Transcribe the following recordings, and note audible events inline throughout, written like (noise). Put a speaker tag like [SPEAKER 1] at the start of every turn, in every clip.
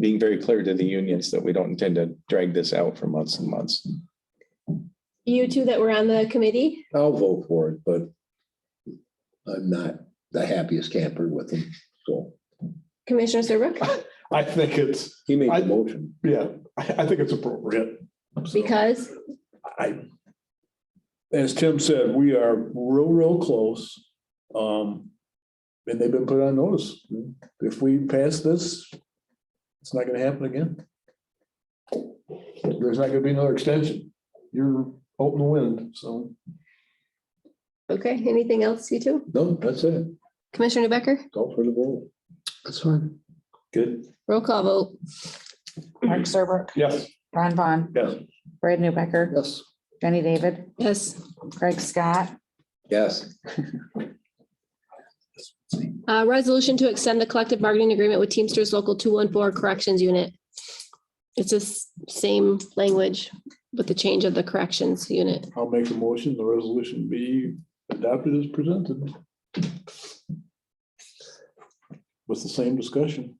[SPEAKER 1] being very clear to the unions that we don't intend to drag this out for months and months.
[SPEAKER 2] You two that were on the committee?
[SPEAKER 3] I'll vote for it, but I'm not the happiest camper with him, so (laughs)
[SPEAKER 2] Commissioner Serbrook,
[SPEAKER 4] I think it's,
[SPEAKER 3] he made
[SPEAKER 4] I-
[SPEAKER 3] the motion.
[SPEAKER 4] yeah, I, I think it's appropriate. So,
[SPEAKER 2] because
[SPEAKER 4] I,
[SPEAKER 5] as Tim said, we are real, real close. Um, and they've been put on notice. If we pass this, it's not gonna happen again. There's not gonna be another extension. You're out in the wind, so.
[SPEAKER 2] Okay, anything else, you two?
[SPEAKER 3] No, that's it.
[SPEAKER 2] Commissioner Becker,
[SPEAKER 3] Go for the vote. That's fine.
[SPEAKER 4] good,
[SPEAKER 2] roll call vote.
[SPEAKER 3] Mm-hmm.
[SPEAKER 6] Mark Serbrook,
[SPEAKER 4] yes,
[SPEAKER 6] Ron Vaughn,
[SPEAKER 4] yes.
[SPEAKER 6] Brad Newbecker,
[SPEAKER 3] Yes.
[SPEAKER 6] Jenny David,
[SPEAKER 2] Yes.
[SPEAKER 6] Craig Scott,
[SPEAKER 3] Yes.
[SPEAKER 2] Uh, resolution to extend the collective bargaining agreement with Teamsters Local two one four Corrections Unit. It's the s- same language with the change of the corrections unit.
[SPEAKER 5] I'll make a motion, the resolution be adopted as presented. With the same discussion.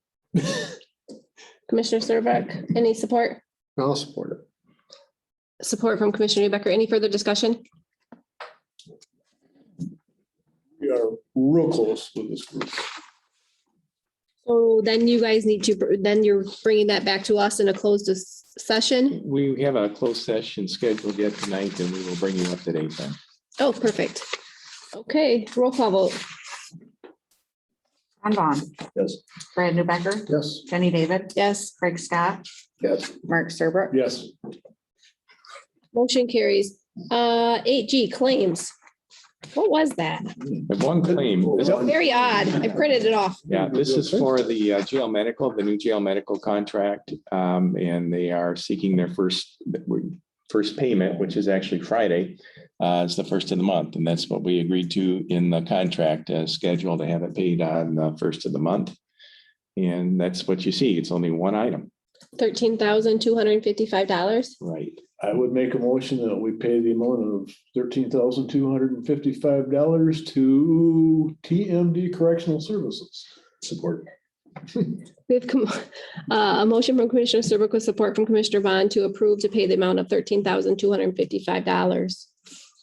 [SPEAKER 2] Commissioner Serbrook, any support?
[SPEAKER 3] I'll support it.
[SPEAKER 2] Support from Commissioner Becker. Any further discussion?
[SPEAKER 5] We are real close with this group.
[SPEAKER 2] So then you guys need to, br- then you're bringing that back to us in a closed dis- session.
[SPEAKER 1] We have a closed session scheduled yet tonight, and we will bring you up to date then.
[SPEAKER 2] Oh, perfect. Okay, roll call vote.
[SPEAKER 6] Ron Vaughn,
[SPEAKER 3] Yes.
[SPEAKER 6] Brad Newbecker,
[SPEAKER 3] Yes.
[SPEAKER 6] Jenny David,
[SPEAKER 2] Yes.
[SPEAKER 6] Craig Scott,
[SPEAKER 3] Yes.
[SPEAKER 6] Mark Serbrook.
[SPEAKER 5] Yes.
[SPEAKER 2] Motion carries. Uh, eight G claims. What was that?
[SPEAKER 1] I have one claim. This-
[SPEAKER 2] Very odd. I printed it off.
[SPEAKER 1] Yeah, this is for the uh, jail medical, the new jail medical contract, um, and they are seeking their first, first payment, which is actually Friday. Uh, it's the first of the month, and that's what we agreed to in the contract, uh, schedule to have it paid on the first of the month. And that's what you see. It's only one item,
[SPEAKER 2] Thirteen thousand two hundred and fifty-five dollars.
[SPEAKER 1] right?
[SPEAKER 5] I would make a motion that we pay the amount of thirteen thousand two hundred and fifty-five dollars to TMD Correctional Services. Support.
[SPEAKER 2] We have com- (laughs) uh, a motion from Commissioner Serbrook with support from Commissioner Vaughn to approve to pay the amount of thirteen thousand two hundred and fifty-five dollars.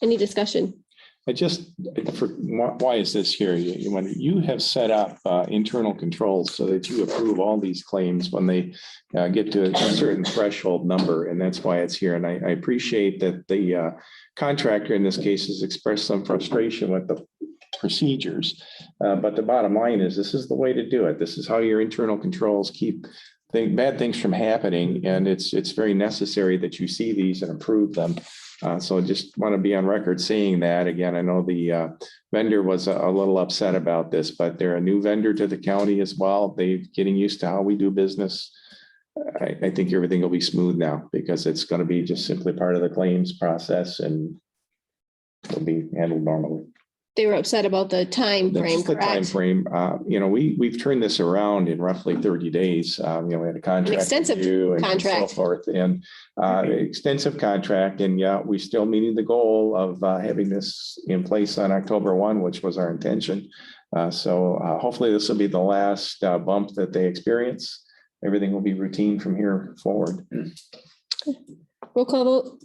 [SPEAKER 2] Any discussion?
[SPEAKER 1] I just, for, why why is this here? You, you wonder- you have set up uh, internal controls so that you approve all these claims when they uh, get to a certain threshold number, and that's why it's here. And I, I appreciate that the uh, contractor in this case has expressed some frustration with the procedures. Uh, But the bottom line is, this is the way to do it. This is how your internal controls keep thing, bad things from happening, and it's, it's very necessary that you see these and approve them. Uh, so I just want to be on record saying that. Again, I know the uh, vendor was a a little upset about this, but they're a new vendor to the county as well. They're getting used to how we do business. I, I think everything will be smooth now because it's going to be just simply part of the claims process and it'll be handled normally.
[SPEAKER 2] They were upset about the time frame.
[SPEAKER 1] That's the time
[SPEAKER 2] correct?
[SPEAKER 1] frame. Uh, you know, we, we've turned this around in roughly thirty days. Um, you know, we had a contract.
[SPEAKER 2] extensive
[SPEAKER 1] review and so
[SPEAKER 2] contract. Mm-hmm.
[SPEAKER 1] Forth and, uh, extensive contract. And yeah, we still meeting the goal of, uh, having this in place on October one, which was our intention. Uh, so, uh, hopefully this will be the last, uh, bump that they experience. Everything will be routine from here forward.
[SPEAKER 2] Roll call vote.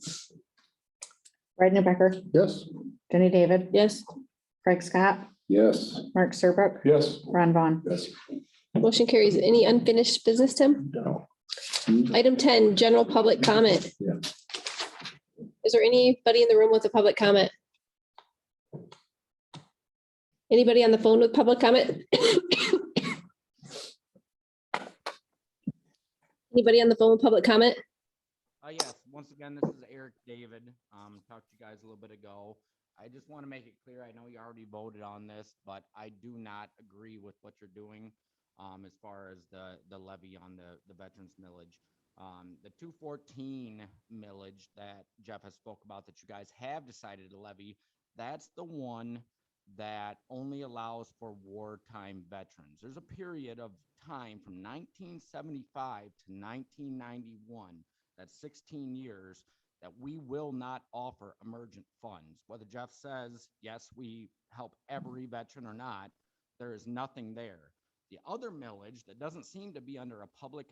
[SPEAKER 6] Brad Newbecker,
[SPEAKER 3] Yes.
[SPEAKER 6] Jenny David,
[SPEAKER 2] Yes.
[SPEAKER 6] Craig Scott,
[SPEAKER 3] Yes.
[SPEAKER 6] Mark Serbrook,
[SPEAKER 5] Yes.
[SPEAKER 6] Ron Vaughn.
[SPEAKER 3] Yes.
[SPEAKER 2] Motion carries. Any unfinished business, Tim?
[SPEAKER 1] No.
[SPEAKER 2] Item ten, general public comment.
[SPEAKER 3] Yeah.
[SPEAKER 2] Is there anybody in the room with a public comment? Anybody on the phone with public comment? (coughs) Anybody on the phone with public comment?
[SPEAKER 7] Uh, yes, once again, this is Eric David. Um, talked to you guys a little bit ago. I just want to make it clear, I know you already voted on this, but I do not agree with what you're doing um, as far as the, the levy on the, the veterans millage. Um, the two fourteen millage that Jeff has spoke about that you guys have decided to levy, that's the one that only allows for wartime veterans. There's a period of time from nineteen seventy-five to nineteen ninety-one that's 16 years that we will not offer emergent funds. Whether Jeff says, yes, we help every veteran or not, there is nothing there. The other millage that doesn't seem to be under a public